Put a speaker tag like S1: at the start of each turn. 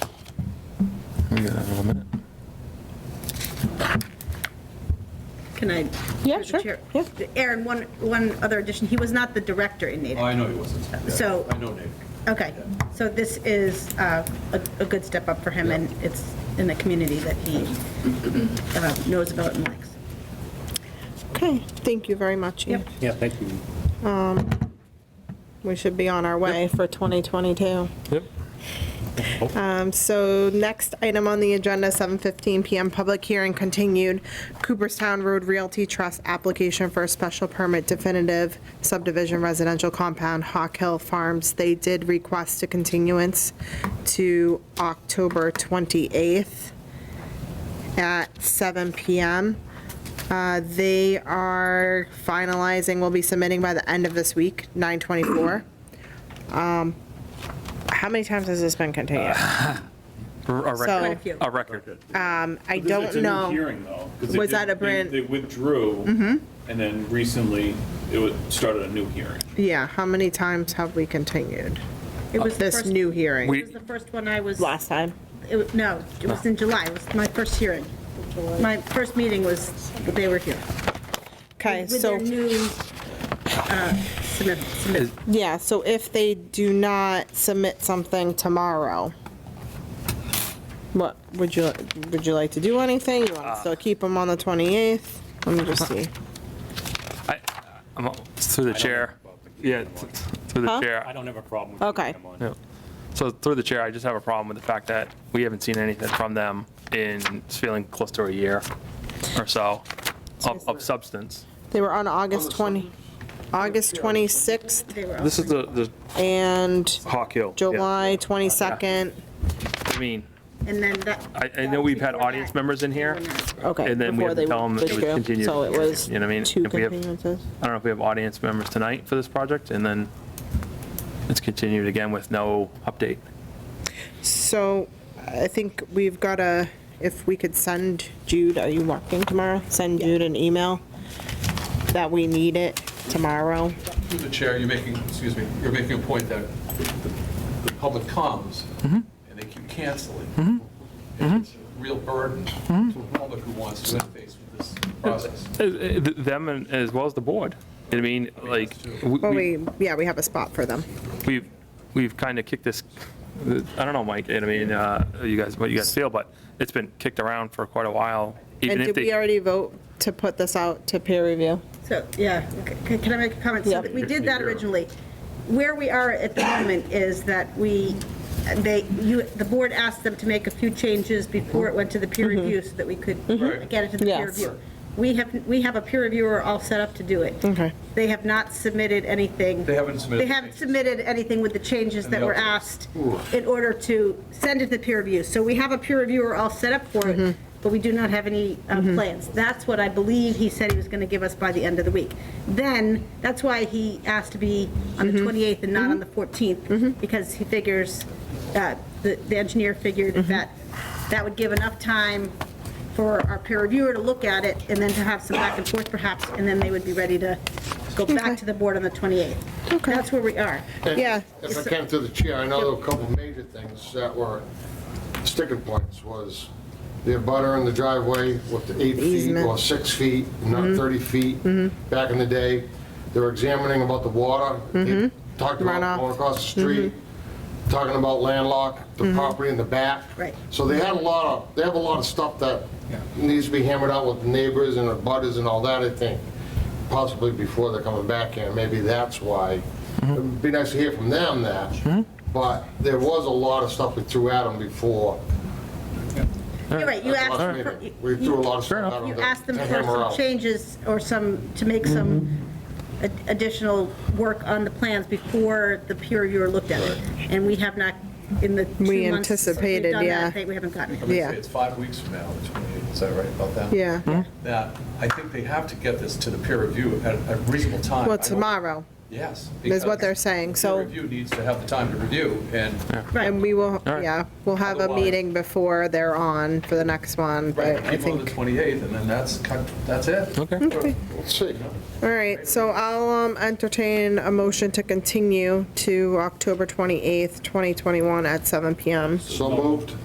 S1: We got another minute.
S2: Can I? through
S3: Yeah,
S2: the
S3: sure,
S2: chair-
S3: yeah.
S2: Aaron, one, one other addition, he was not the director in
S4: Oh,
S2: Natick.
S4: I know he wasn't. Yeah,
S2: So-
S4: I know Nick.
S2: Okay, so this is uh, a a good step up for him, and it's in the community that he uh, knows about and likes.
S3: Okay, thank you very much. Ian.
S2: Yep.
S5: Yeah, thank you.
S3: We should be on our way for 2022.
S1: Yep.
S3: Um, So next item on the agenda, 7:15 PM, public hearing continued, Cooperstown Road Realty Trust application for a special permit definitive subdivision residential compound, Hawk Hill Farms. They did request a continuance to October 28th at 7 PM. Uh, They are finalizing, will be submitting by the end of this week, 9:24. How many times has this been continued?
S1: A
S3: So-
S1: record.
S2: Quite a few.
S1: A record.
S3: I
S6: But there's-
S3: don't know.
S6: It's a new hearing, though. 'cause they
S3: Was
S6: did-
S3: that a
S6: they-
S3: brand- Mm-hmm.
S6: They withdrew, and then recently, it wa- started a new hearing.
S3: Yeah, how many times have we continued
S2: It was the
S3: Oh, this
S2: first-
S3: new hearing?
S2: It was the first one I was.
S3: Last time.
S2: it was- No, it was in July, it was my first hearing. My first meeting was, they were here.
S3: Okay,
S2: With their
S3: so,
S2: new uh, submit, submit.
S3: yeah, so if they do not submit something tomorrow, what, would you, would you like to do anything? You want to still keep them on the 28th? Let me just see.
S1: I- I'm all- Through the chair. Yeah, th- through the
S3: Huh?
S5: I
S1: chair.
S5: don't have a problem with
S3: Okay.
S5: keeping him on.
S1: Yeah. So through the chair, I just have a problem with the fact that we haven't seen anything from them in, it's feeling close to a year or so of, of substance.
S3: They were on August 20, August 26th
S2: They were all-
S1: This is the, the
S3: and
S1: Hawk Hill. yeah.
S3: July 22nd.
S1: I mean,
S2: And then that.
S1: I, I know we've had
S2: Before
S1: audience
S2: that,
S1: members in here.
S2: they were not.
S3: Okay.
S1: And then we
S3: before
S1: have
S3: they
S1: to tell 'em it was
S3: withdrew.
S1: continued.
S3: So it was
S1: You know what I mean?
S3: two
S1: If we have-
S3: continuances.
S1: I don't know if we have audience members tonight for this project, and then it's continued again with no update.
S3: So I think we've got to, if we could send Jude, are you working tomorrow? Send Jude an email that we need it tomorrow.
S7: Through the chair, you're making, excuse me, you're making a point that the- the public comes, and they keep canceling. And It's a real burden to the public who wants to interface with this process.
S1: Uh, uh, th- Them and as well as the board. I mean, like, we-
S3: Well,
S1: we-
S3: we, yeah, we have a spot for them.
S1: we've, we've kind of kicked this, I don't know, Mike, and I mean, uh, you guys, what you guys feel, but it's been kicked around for quite a while.
S3: And
S1: even if
S3: did
S1: they-
S3: we already vote to put this out to peer review?
S2: So, yeah, c- can I make a comment?
S3: Yeah.
S2: So We did that originally. Where we are at the moment is that we, they, you, the board asked them to make a few changes before it went to the peer review so that we could get it to the peer
S3: Mm-hmm. Yes.
S2: review. We have, we have a peer reviewer all set up to do it.
S3: Okay.
S2: They have not submitted anything.
S7: They haven't submitted
S2: They
S7: the
S2: haven't
S7: changes.
S2: submitted anything with the changes that
S7: the
S2: were asked
S7: updates.
S2: in order to send it to peer review. So we have a peer reviewer all set up for
S3: Mm-hmm.
S2: it, but we do not have any uh, plans. That's what I believe he said he was going to give us by the end of the week. Then, that's why he asked to be on the
S3: Mm-hmm.
S2: 28th and not on the 14th, because he figures, uh, the the engineer figured
S3: Mm-hmm.
S2: that that would give enough time for our peer reviewer to look at it and then to have some back and forth perhaps, and then they would be ready to go
S3: Okay.
S2: back to the board on the 28th.
S3: Okay.
S2: That's where we are.
S8: And
S3: Yeah.
S8: If I can, through the chair, I know there were a couple major things that were sticking points, was the butter in the driveway with the eight feet
S3: easement. Mm-hmm.
S8: or six feet, not 30 feet, back in the day. They were examining about the water, They talked
S3: Mm-hmm. Runoff. Mm-hmm.
S8: about going across the street, talking about landlocked, the property in the back.
S2: Mm-hmm. Right.
S8: So they had a lot of, they have a lot of stuff that needs to be hammered out with neighbors and the butters and all that, I think, possibly before they're coming back here, maybe that's why.
S2: Mm-hmm.
S8: It'd be nice to hear from them that, but there was a lot of stuff we threw at them before.
S2: You're right, you
S8: at the
S2: asked,
S8: last
S2: for-
S8: meeting. We threw a lot of stuff at them
S2: you
S8: to-
S2: asked them
S8: to
S2: for
S8: hammer
S2: some
S8: out.
S2: changes or some, to make some
S3: Mm-hmm.
S2: ad- additional work on the plans before the peer reviewer looked at it. And we have not, in the two months.
S3: We
S2: since we've
S3: anticipated,
S2: done that,
S3: yeah.
S2: they- We haven't gotten it.
S3: mean, Yeah.
S6: It's five weeks from now, the 28th, is that right about that?
S3: Yeah.
S6: Now, I think they have to get this to the peer review at a reasonable time. I
S3: Well,
S6: don't-
S3: tomorrow.
S6: Yes.
S3: is
S6: because
S3: what they're saying,
S6: the
S3: so-
S6: Peer review needs to have the time to review, and
S3: And we will,
S1: All right.
S3: yeah, we'll have a
S6: Otherwise-
S3: meeting before they're on for the next one, but I
S6: right, people on
S3: think.
S6: the 28th, and then that's, cut- that's it.
S3: Okay.
S8: Let's see.
S3: All right, so I'll um, entertain a motion to continue to October 28th, 2021 at 7 PM.
S8: So moved.